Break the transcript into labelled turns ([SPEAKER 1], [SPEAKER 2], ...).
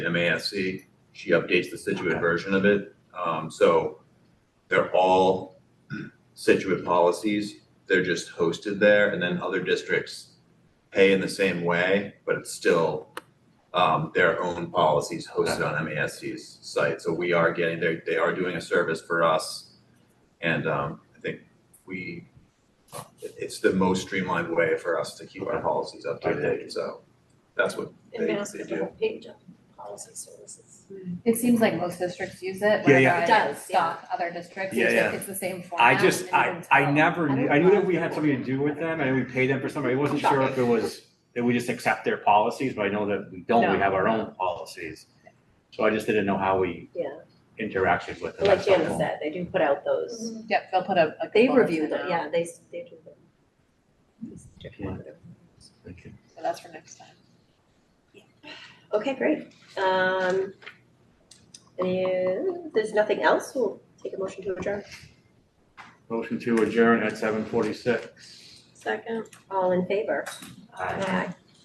[SPEAKER 1] MASC. She updates the Situate version of it. Um, so they're all Situate policies. They're just hosted there and then other districts pay in the same way, but it's still um, their own policies hosted on MASC's site. So we are getting, they, they are doing a service for us. And um, I think we, it- it's the most streamlined way for us to keep our policies up to date. So that's what
[SPEAKER 2] And
[SPEAKER 1] They-
[SPEAKER 2] Mass
[SPEAKER 1] they
[SPEAKER 2] is
[SPEAKER 1] do.
[SPEAKER 2] a whole page of policy services.
[SPEAKER 3] It seems like most districts use it
[SPEAKER 4] Yeah,
[SPEAKER 3] whenever
[SPEAKER 4] yeah.
[SPEAKER 3] I
[SPEAKER 2] It does, yeah.
[SPEAKER 3] stalk other districts,
[SPEAKER 4] Yeah,
[SPEAKER 3] it's
[SPEAKER 4] yeah.
[SPEAKER 3] like it's the same format.
[SPEAKER 4] I just, I, I never,
[SPEAKER 2] I
[SPEAKER 4] knew
[SPEAKER 2] don't
[SPEAKER 4] I knew that
[SPEAKER 2] know.
[SPEAKER 4] we had something to do with them, and we paid them for something, I wasn't sure if it was, that we just accept their policies, but I know that we don't, we
[SPEAKER 3] No.
[SPEAKER 4] have our own policies. So I just didn't know how we
[SPEAKER 2] Yeah.
[SPEAKER 4] interacted with them.
[SPEAKER 5] Like
[SPEAKER 4] That's
[SPEAKER 5] Janice
[SPEAKER 4] helpful.
[SPEAKER 5] said, they do put out
[SPEAKER 2] Mm-hmm.
[SPEAKER 5] those,
[SPEAKER 3] Yep, they'll put a. a
[SPEAKER 2] They
[SPEAKER 3] component
[SPEAKER 2] review
[SPEAKER 3] in
[SPEAKER 2] them,
[SPEAKER 3] now.
[SPEAKER 2] yeah, they, s- they do them.
[SPEAKER 4] Thank you.
[SPEAKER 3] So that's for next time.
[SPEAKER 5] Okay, great. Um, and there's nothing else, we'll take a motion to adjourn.
[SPEAKER 4] Motion to adjourn at seven forty-six.
[SPEAKER 5] Second. All in favor?
[SPEAKER 4] Aye.
[SPEAKER 5] Aye.